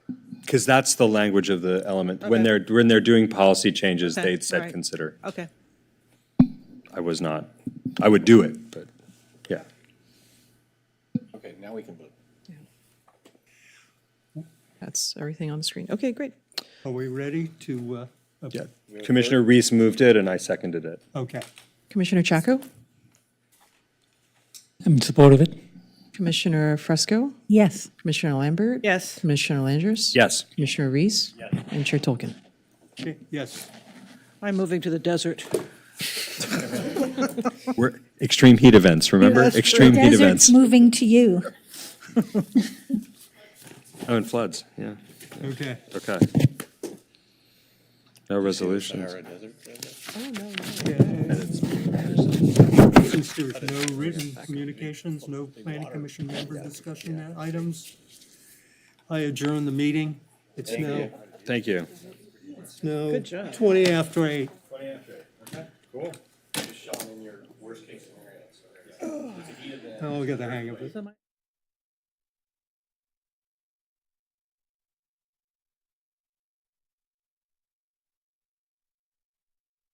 because that's the language of the element. When Okay. they're, when they're doing policy changes, Okay, they said alright. consider. Okay. I was not, I would do it, but, yeah. Okay, now we can vote. That's everything on the screen. Okay, great. Are we ready to, uh, Yeah. Commissioner Reese moved it and I seconded it. okay. Commissioner Chaco, I'm in support of it. Commissioner Fresco, Yes. Commissioner Lambert. Yes. Commissioner Langers. Yes. Commissioner Reese. And Chair Tolkien. Okay, Yes, I'm moving to the desert. We're, extreme heat events, remember? Yes, Extreme heat Desert's events. moving to you. Oh, and floods, yeah, okay. okay. No resolutions. Sahara Desert, uh, Since there's no written communications, no planning commission member discussion items, I adjourn the meeting. It's now, Thank you. it's now 20 after 8. Sean, in your worst case scenario. I'll get Oh, the hang of it.